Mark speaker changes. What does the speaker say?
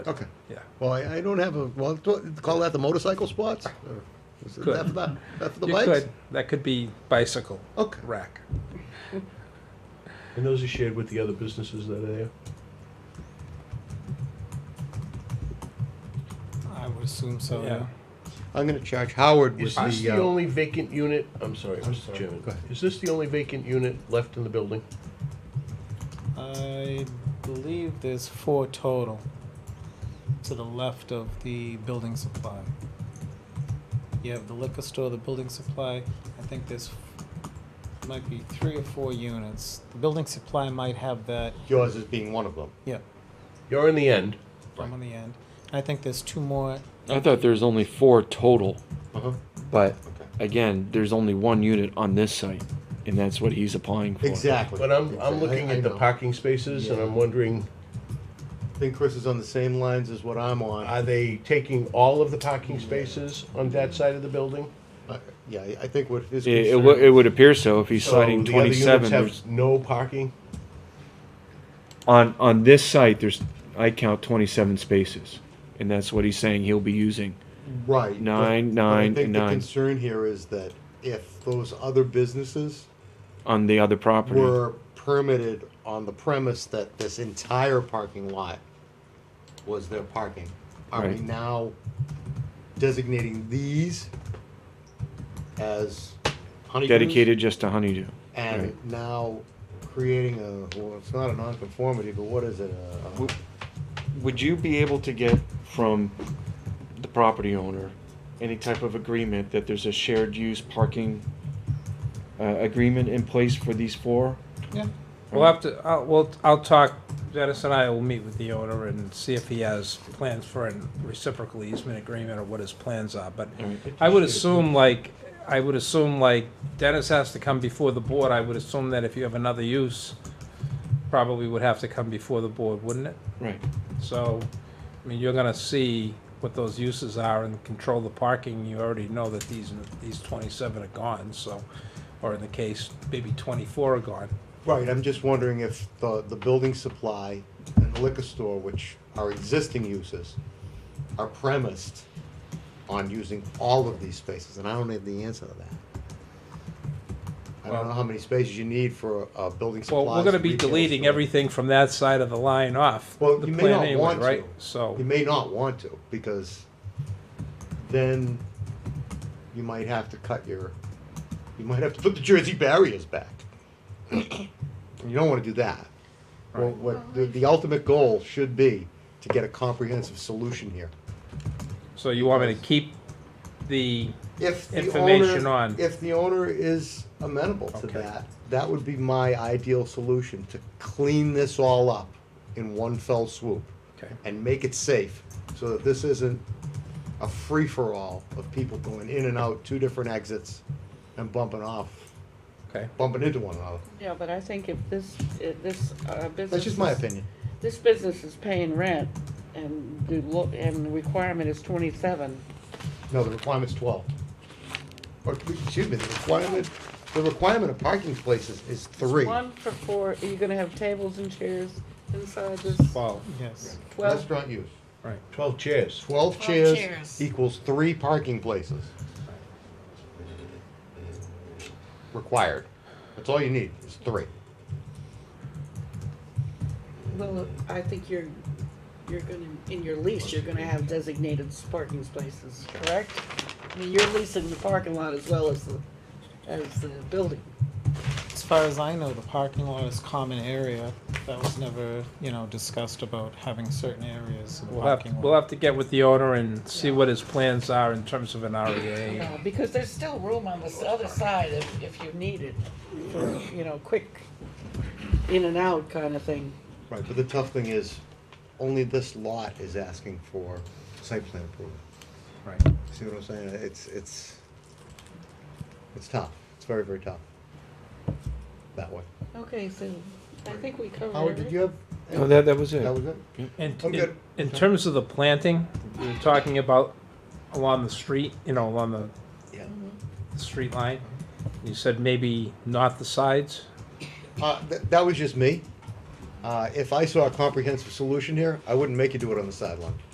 Speaker 1: Okay.
Speaker 2: Yeah.
Speaker 1: Well, I, I don't have a, well, do- call that the motorcycle spots? Or Is it
Speaker 2: Could.
Speaker 1: that for the, that for the
Speaker 2: You
Speaker 1: bikes?
Speaker 2: could, that could be bicycle
Speaker 1: Okay.
Speaker 2: rack.
Speaker 3: And those are shared with the other businesses that are there?
Speaker 4: I would assume so, yeah.
Speaker 2: Yeah.
Speaker 1: I'm gonna charge Howard with
Speaker 3: Is
Speaker 1: the,
Speaker 3: this the
Speaker 1: uh,
Speaker 3: only vacant unit, I'm sorry, Mr. Chairman,
Speaker 1: Go ahead.
Speaker 3: is this the only vacant unit left in the building?
Speaker 4: I believe there's four total to the left of the building supply. You have the liquor store, the building supply, I think there's, f- might be three or four units. The building supply might have that,
Speaker 1: yours as being one of them.
Speaker 4: yeah,
Speaker 3: You're in the end.
Speaker 4: I'm on the end. I think there's two more,
Speaker 5: I thought there's only four total,
Speaker 1: Uh-huh.
Speaker 5: but
Speaker 1: Okay.
Speaker 5: again, there's only one unit on this site, and that's what he's applying for.
Speaker 1: Exactly.
Speaker 3: But I'm,
Speaker 1: Exactly.
Speaker 3: I'm looking
Speaker 1: I- I
Speaker 3: at the
Speaker 1: know.
Speaker 3: parking spaces and I'm wondering,
Speaker 1: I think Chris is on the same lines as what I'm on.
Speaker 3: are they taking all of the parking spaces on that side of the building?
Speaker 1: I- Yeah, I I think what his
Speaker 5: It, it,
Speaker 1: concern.
Speaker 5: wo- it would appear so if he's citing
Speaker 3: So the other units
Speaker 5: 27.
Speaker 3: have
Speaker 5: There's,
Speaker 3: no parking?
Speaker 5: on on this site, there's I count 27 spaces, and that's what he's saying he'll be using.
Speaker 1: Right. but-
Speaker 5: Nine,
Speaker 1: but
Speaker 5: nine,
Speaker 1: I think the
Speaker 5: nine.
Speaker 1: concern here is that if those other businesses
Speaker 5: on the other property.
Speaker 1: were permitted on the premise that this entire parking lot was their parking, are we
Speaker 5: Right.
Speaker 1: now designating these as honeydews?
Speaker 5: dedicated just to honeydew.
Speaker 1: And
Speaker 5: right.
Speaker 1: now creating a, well, it's not a nonconformity, but what is it? a- a-
Speaker 5: Would- Would you be able to get from the property owner any type of agreement that there's a shared use parking uh, agreement in place for these four?
Speaker 4: yeah.
Speaker 2: We'll have to, I'll, we'll, I'll talk, Dennis and I will meet with the owner and see if he has plans for a reciprocal easement agreement or what his plans are, but I would assume like, I would assume like Dennis has to come before the board, I would assume that if you have another use, probably would have to come before the board, wouldn't it?
Speaker 5: Right.
Speaker 2: So, I mean, you're gonna see what those uses are and control the parking, you already know that these, these twenty-seven are gone, so, or in the case, maybe twenty-four are gone.
Speaker 1: Right, I'm just wondering if the, the building supply and the liquor store, which are existing uses, are premised on using all of these spaces, and I don't have the answer to that. I don't know how many spaces you need for a, a building supply.
Speaker 2: Well, we're gonna be deleting everything from that side of the line off.
Speaker 1: Well,
Speaker 2: the
Speaker 1: you may
Speaker 2: plan
Speaker 1: not
Speaker 2: anyway,
Speaker 1: want to.
Speaker 2: right?
Speaker 1: You
Speaker 2: So,
Speaker 1: may not want to, because then you might have to cut your, you might have to put the Jersey barriers back. You don't wanna do that. Well, what, the, the ultimate goal should be to get a comprehensive solution here.
Speaker 2: so you want me to keep the,
Speaker 1: If the
Speaker 2: Information
Speaker 1: owner,
Speaker 2: on-
Speaker 1: if the owner is amenable to
Speaker 2: Okay.
Speaker 1: that, that would be my ideal solution, to clean this all up in one fell swoop.
Speaker 2: Okay.
Speaker 1: And make it safe, so that this isn't a free-for-all of people going in and out, two different exits, and bumping off,
Speaker 2: okay,
Speaker 1: bumping into one another.
Speaker 6: Yeah, but I think if this, if this uh, business.
Speaker 1: That's just my
Speaker 6: is-
Speaker 1: opinion.
Speaker 6: This business is paying rent and the lo, and the requirement is twenty-seven.
Speaker 1: No, the requirement's twelve. Or, excuse me, the requirement, the requirement of parking places is three.
Speaker 6: One for four, are you gonna have tables and chairs inside this
Speaker 2: well,
Speaker 4: Yes,
Speaker 6: twelve?
Speaker 1: Restaurant use.
Speaker 2: right.
Speaker 3: Twelve chairs.
Speaker 1: Twelve chairs equals three parking places. Required. That's all you need, is three.
Speaker 6: Well, I think you're, you're gonna, in your lease, you're gonna have designated parking spaces, correct? I mean, you're leasing the parking lot as well as the, as the building.
Speaker 4: as far as I know, the parking lot is common area, that was never, you know, discussed about having certain areas of the
Speaker 2: We'll have,
Speaker 4: parking lot.
Speaker 2: we'll have to get with the owner and see what his plans are in terms of an E REA.
Speaker 6: No, Uh, because there's still room on this other side if, if you need it, for, you know, quick in and out kind of thing.
Speaker 1: Right, but the tough thing is, only this lot is asking for site plan approval.
Speaker 2: Right.
Speaker 1: See what I'm saying? It's, it's, it's tough. It's very, very tough. That way.
Speaker 6: Okay, so I think we covered
Speaker 1: Howard, did you
Speaker 6: everything.
Speaker 1: have?
Speaker 5: No, Oh, that, that was it.
Speaker 1: That was it?
Speaker 2: And
Speaker 1: I'm
Speaker 2: in,
Speaker 1: good.
Speaker 2: in terms of the planting, we were talking about along the street, you know, along the
Speaker 1: Yeah.
Speaker 2: street line. You said maybe not the sides?
Speaker 1: Uh, th- that was just me. Uh, if I saw a comprehensive solution here, I wouldn't make you do it on the sideline.